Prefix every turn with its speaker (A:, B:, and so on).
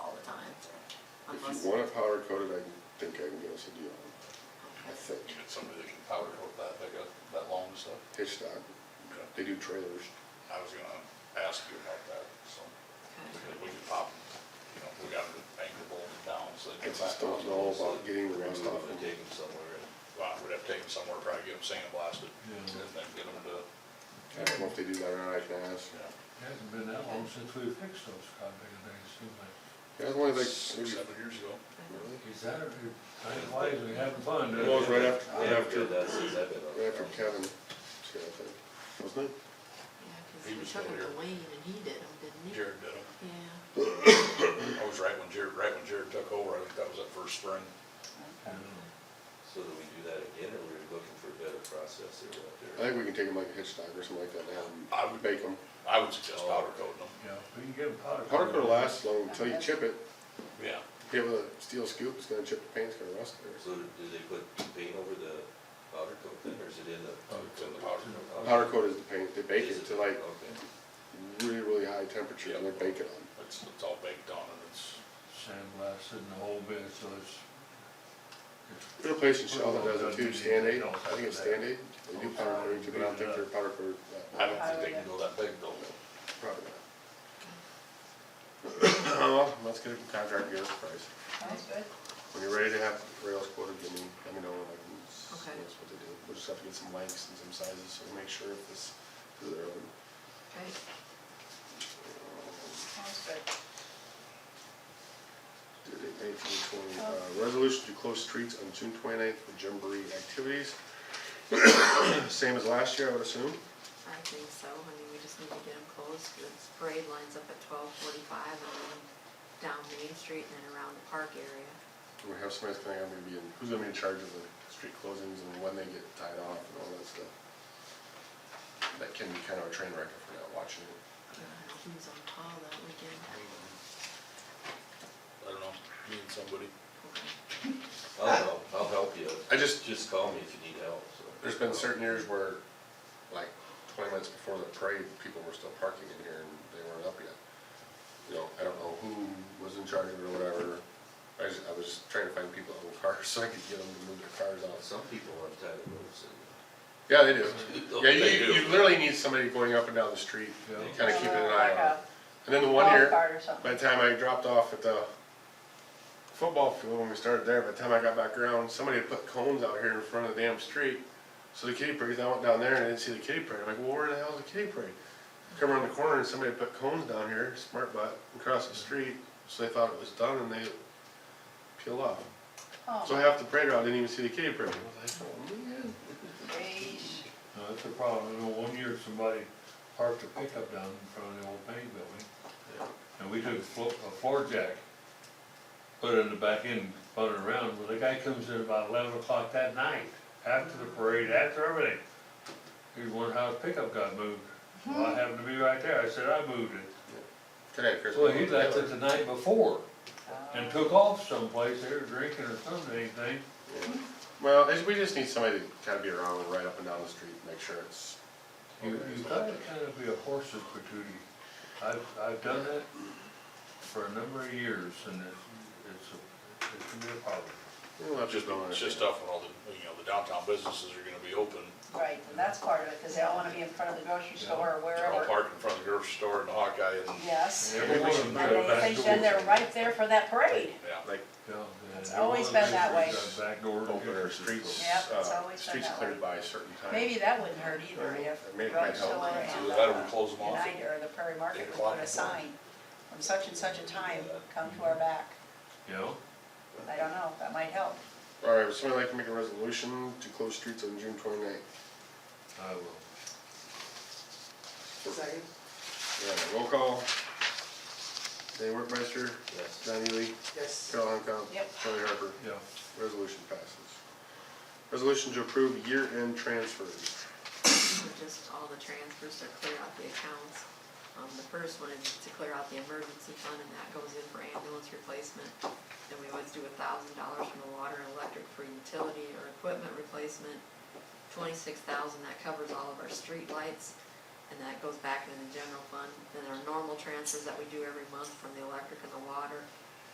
A: If you want it powder coated, I think I can get us a deal. I think.
B: You get somebody that can powder coat that, they got that long stuff?
A: Hitchcock, they do trailers.
B: I was gonna ask you about that, so, because we could pop, you know, we got an anchor bolt down, so
A: I
B: they get back.
A: just don't
B: on
A: know
B: those, so
A: about getting the rest off them.
B: We'd take them somewhere, and- well, we'd have to take them somewhere, probably get them sandblasted, and then get them to,
A: I don't know if they do that or not, I can ask.
B: you know,
C: It hasn't been that long since we fixed those codpick things, seems like.
A: Yeah, it's only like,
B: six,
A: maybe,
B: seven years ago.
D: uh,
A: really?
C: Is that, time flies, we having fun.
A: It was right after, right
E: Yeah,
A: after, right
E: that's exactly what I was
A: after
E: thinking.
A: Kevin, see, I think, wasn't it?
B: He
D: Yeah, 'cause we
B: was
D: took
B: still
D: him
B: here.
D: to Wayne and he did them, didn't he?
B: Jared did them,
D: Yeah.
B: I was right when Jared, right when Jared took over, I think that was that first spring.
E: So do we do that again, or we're looking for a better process or
A: I
E: what there?
A: think we can take them like a hitch dog or something like that and have 'em
B: I would,
A: bake them.
B: I would
A: Oh.
B: suggest powder coating them,
C: Yeah, we can get a powder.
A: Powder coat lasts long until you chip it.
B: yeah.
A: If you have a steel scoop, it's gonna chip the paint, it's gonna rust there.
E: So do do they put paint over the powder coat then, or is it in the?
C: Oh,
B: it's in the powder
E: coat.
A: Powder coat is the paint, they bake
E: Is
A: it to like
E: Okay.
A: really, really high temperature and they bake it on.
B: It's, it's all baked on and it's,
C: Sandblasted and the whole bit, so it's.
A: There's a place in Shaw that does it too, Stand Aid, I think it's Stand Aid, they do powder coating too, but I don't think they're powder coated. that
B: I
A: way.
B: don't think they can go that big though.
A: Probably not. Oh, Well, let's get a contract here, price.
F: Sounds good.
A: When you're ready to have rails quoted, give me, let me know and I can, s-
D: Okay.
A: that's what they do. We'll just have to get some lengths and some sizes, so we make sure if this, because they're, um,
D: Okay.
F: Sounds good.
A: due date nineteen twenty. Uh, Resolution to close streets on June twenty-ninth for Jamboree activities. Same as last year, I would assume.
D: I think so, I mean, we just need to get them closed, because the parade lines up at twelve forty-five and then down Main Street and then around the park area.
A: We have somebody's gonna have to be in, who's gonna be in charge of the street closings and when they get tied off and all that stuff. That can be kind of a train wreck if we're not watching it.
D: I don't know who's Uh, on call that weekend.
B: I don't know, me and somebody.
D: Okay.
E: I'll help, I'll help you,
A: I just,
E: just call me if you need help, so.
A: there's been certain years where, like, twenty minutes before the parade, people were still parking in here and they weren't up yet. You know, I don't know who was in charge of it or whatever, I just, I was just trying to find people that own cars, so I could get them to move their cars out, so.
E: Some people on tight roads and.
A: Yeah, they do, yeah,
E: They
A: you,
E: do.
A: you literally need somebody going up and down the street,
C: Yeah.
A: kinda keeping an eye
F: Like
A: on it.
F: a
A: And then the one year.
F: golf cart or something.
A: By the time I dropped off at the football field when we started there, by the time I got back around, somebody had put cones out here in front of the damn street. So the kitty parade, I went down there and I didn't see the kitty parade. I'm like, well, where the hell's the kitty parade? Come around the corner and somebody had put cones down here, smart butt, across the street. So they thought it was done and they peeled off.
F: Oh,
A: So half the parade route didn't even see the kitty parade. I was like, oh man.
F: geez.
C: No, that's a problem, I know one year somebody parked a pickup down in front of the old bank building, and we took a flo- a floor jack, put it in the back end, spun it around, well, the guy comes in about eleven o'clock that night, after the parade, after everything. He was wondering how his pickup got moved, well, I happened to be right there, I said, I moved it.
A: Today, Chris.
C: Well, he left it the night before, and
F: Uh,
C: took off someplace, they were drinking or something, anything,
A: Well, I- we just need somebody to kind of be around and ride up and down the street, make sure it's.
C: You, you gotta kind of be a horse's patootie. I've, I've done that for a number of years and it, it's, a- it can be a problem.
A: Well, that's
B: Just,
A: going
B: it's just tough when all the, you know, the downtown businesses are gonna be open.
F: Right, and that's part of it, because they all want to be in front of the grocery store or
B: They're all
F: wherever.
B: parked in front of the grocery store and the Hawkeye and,
F: Yes.
C: Every one of them
F: And
C: got
F: they
C: back
F: think
C: doors.
F: then they're right there for that parade.
B: yeah.
A: Like,
C: Yeah, and
F: It's
C: every one
F: always
C: of
F: been
C: them
F: that way.
C: got Back door. to
A: open
C: get
A: our
C: their
A: streets,
F: Yep, it's
A: uh,
F: always been
A: streets
F: that way.
A: cleared by a certain time.
F: Maybe that wouldn't hurt either if
A: Maybe it
F: the
A: might
F: grocery store
A: help.
F: and uh,
B: Either that or we close them
F: the
B: off at
F: United or the Prairie Market would
B: o'clock.
F: put a sign from such and such a time, come to our back.
C: You know,
F: I don't know, that might help.
A: All right, would somebody like to make a resolution to close streets on June twenty-ninth?
C: I will.
A: Second. Yeah, roll call. Danny Workmeister,
E: Yes.
A: John Ely,
G: Yes.
A: Carol Hunkell.
F: Yep.
A: Charlie Harper.
C: Yeah,
A: Resolution passes. Resolution to approve year-end transfers.
D: These are just all the transfers to clear out the accounts. Um, the first one is to clear out the emergency fund, and that goes in for ambulance replacement. And we always do a thousand dollars from the water and electric for utility or equipment replacement. Twenty-six thousand, that covers all of our street lights, and that goes back in the general fund. Then our normal transfers that we do every month from the electric and the water,